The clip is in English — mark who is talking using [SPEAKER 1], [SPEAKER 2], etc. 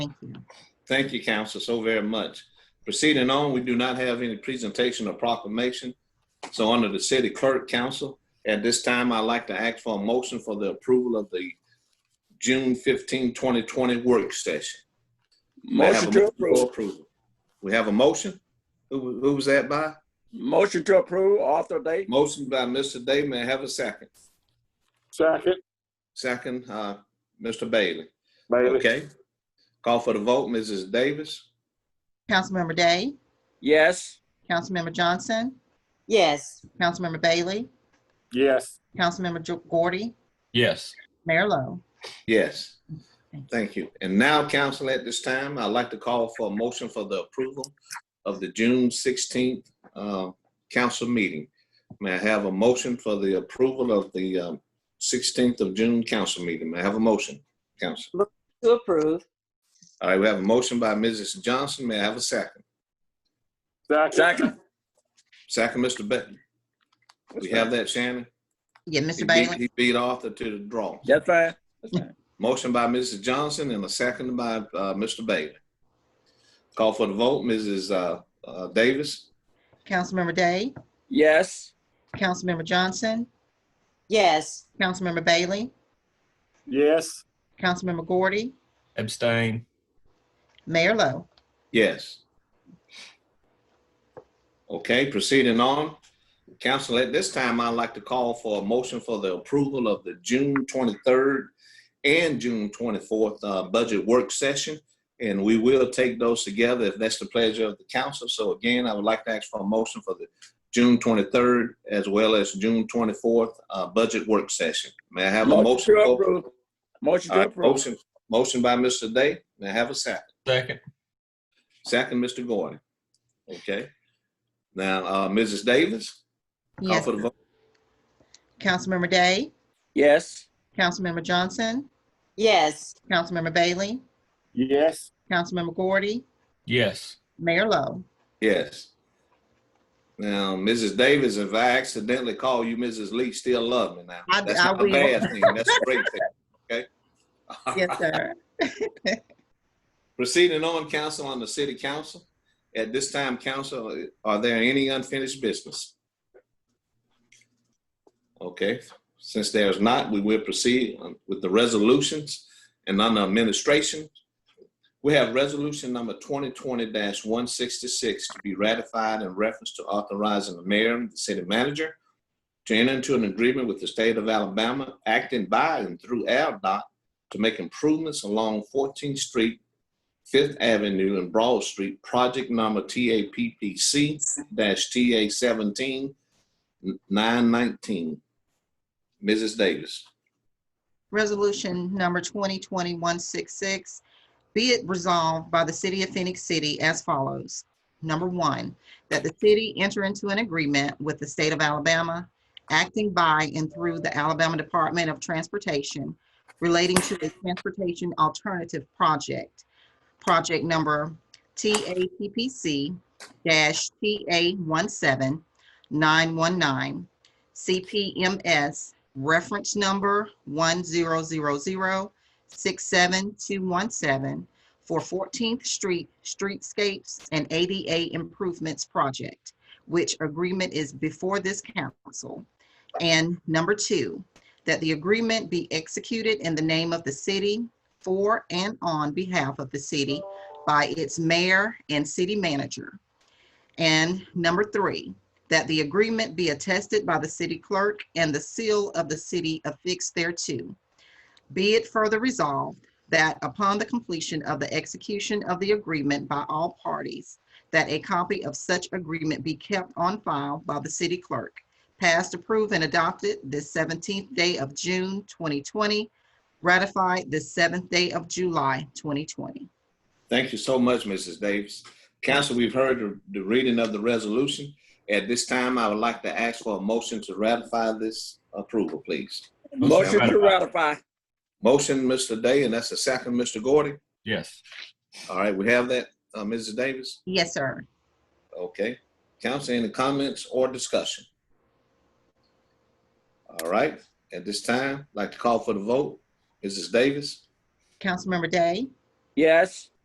[SPEAKER 1] Thank you.
[SPEAKER 2] Thank you, Council, so very much. Proceeding on, we do not have any presentation or proclamation. So under the City Clerk Council, at this time, I'd like to ask for a motion for the approval of the June 15, 2020 work session. May I have a
[SPEAKER 3] Motion to
[SPEAKER 2] for
[SPEAKER 3] approve.
[SPEAKER 2] approval? We have a motion? Who, who was that by?
[SPEAKER 3] Motion to approve, author date.
[SPEAKER 2] Motion by Mr. Day, may I have a second?
[SPEAKER 4] Second,
[SPEAKER 2] Second, uh, Mr. Bailey.
[SPEAKER 4] Bailey.
[SPEAKER 2] Okay. Call for the vote, Mrs. Davis?
[SPEAKER 1] Councilmember Day,
[SPEAKER 3] Yes.
[SPEAKER 1] Councilmember Johnson,
[SPEAKER 5] Yes,
[SPEAKER 1] Councilmember Bailey,
[SPEAKER 4] Yes,
[SPEAKER 1] Councilmember Jo- Gordy,
[SPEAKER 6] Yes.
[SPEAKER 1] Mayor Lo.
[SPEAKER 2] Yes.
[SPEAKER 1] Thank you.
[SPEAKER 2] Thank you. And now, council, at this time, I'd like to call for a motion for the approval of the June 16th uh, council meeting. May I have a motion for the approval of the um, 16th of June council meeting? May I have a motion, council?
[SPEAKER 5] to approve.
[SPEAKER 2] All right, we have a motion by Mrs. Johnson. May I have a second?
[SPEAKER 4] second,
[SPEAKER 3] Second.
[SPEAKER 2] Second, Mr. Benton. We have that, Shannon?
[SPEAKER 1] Yeah,
[SPEAKER 2] He
[SPEAKER 1] Mr.
[SPEAKER 2] beat-
[SPEAKER 1] Bailey,
[SPEAKER 2] He beat Arthur to the draw.
[SPEAKER 3] That's fine.
[SPEAKER 2] Motion by Mrs. Johnson and a second by uh, Mr. Bailey. Call for the vote, Mrs. uh, uh, Davis?
[SPEAKER 1] Councilmember Day,
[SPEAKER 3] Yes.
[SPEAKER 1] Councilmember Johnson,
[SPEAKER 5] Yes,
[SPEAKER 1] Councilmember Bailey,
[SPEAKER 4] yes,
[SPEAKER 1] Councilmember Gordy,
[SPEAKER 6] Abstain.
[SPEAKER 1] Mayor Lo.
[SPEAKER 2] Yes. Okay, proceeding on. Council, at this time, I'd like to call for a motion for the approval of the June 23rd and June 24th uh, budget work session, and we will take those together if that's the pleasure of the council. So again, I would like to ask for a motion for the June 23rd as well as June 24th uh, budget work session. May I have a motion?
[SPEAKER 3] Motion to
[SPEAKER 2] for-
[SPEAKER 3] approve. Motion
[SPEAKER 2] All
[SPEAKER 3] to
[SPEAKER 2] right,
[SPEAKER 3] approve.
[SPEAKER 2] Motion, motion by Mr. Day. May I have a second?
[SPEAKER 6] Second.
[SPEAKER 2] Second, Mr. Gordon. Okay. Now, uh, Mrs. Davis, call
[SPEAKER 1] Yes,
[SPEAKER 2] for the vote.
[SPEAKER 1] Councilmember Day,
[SPEAKER 3] Yes.
[SPEAKER 1] Councilmember Johnson,
[SPEAKER 5] yes,
[SPEAKER 1] Councilmember Bailey,
[SPEAKER 4] yes,
[SPEAKER 1] Councilmember Gordy,
[SPEAKER 6] Yes.
[SPEAKER 1] Mayor Lo.
[SPEAKER 2] Yes. Now, Mrs. Davis, if I accidentally call you Mrs. Lee, still love me now.
[SPEAKER 1] I-
[SPEAKER 2] That's
[SPEAKER 1] I
[SPEAKER 2] not a
[SPEAKER 1] will.
[SPEAKER 2] bad thing. That's a great thing. Okay?
[SPEAKER 1] Yes, sir.
[SPEAKER 2] Proceeding on, council on the city council. At this time, council, are there any unfinished business? Okay, since there's not, we will proceed with the resolutions and under administration. We have resolution number twenty twenty one sixty-six to be ratified in reference to authorizing the mayor and the city manager to enter into an agreement with the state of Alabama acting by and through ALDOT to make improvements along Fourteenth Street Fifth Avenue and Broad Street, project number TAPPC TA seventeen nine nineteen. Mrs. Davis.
[SPEAKER 1] Resolution number 2020-166, be it resolved by the City of Phoenix City as follows. Number one, that the city enter into an agreement with the state of Alabama, acting by and through the Alabama Department of Transportation relating to a transportation alternative project, project number TAPPC-TA17919, CPMS reference number one zero zero zero six seven two one seven for Fourteenth Street Streetscapes and ADA Improvements Project, which agreement is before this council. And number two, that the agreement be executed in the name of the city for and on behalf of the city by its mayor and city manager. And number three, that the agreement be attested by the city clerk and the seal of the city affixed thereto. Be it further resolved that upon the completion of the execution of the agreement by all parties, that a copy of such agreement be kept on file by the city clerk, passed, approved, and adopted this 17th day of June 2020, ratified this 7th day of July 2020.
[SPEAKER 2] Thank you so much, Mrs. Davis. Council, we've heard the- the reading of the resolution. At this time, I would like to ask for a motion to ratify this approval, please.
[SPEAKER 3] Motion to ratify.
[SPEAKER 2] Motion, Mr. Day, and that's a second, Mr. Gordy.
[SPEAKER 6] Yes.
[SPEAKER 2] All right, we have that, uh, Mrs. Davis.
[SPEAKER 1] Yes, sir.
[SPEAKER 2] Okay. Council, any comments or discussion? All right, at this time, I'd like to call for the vote. Mrs. Davis?
[SPEAKER 1] Councilmember Day,
[SPEAKER 3] yes.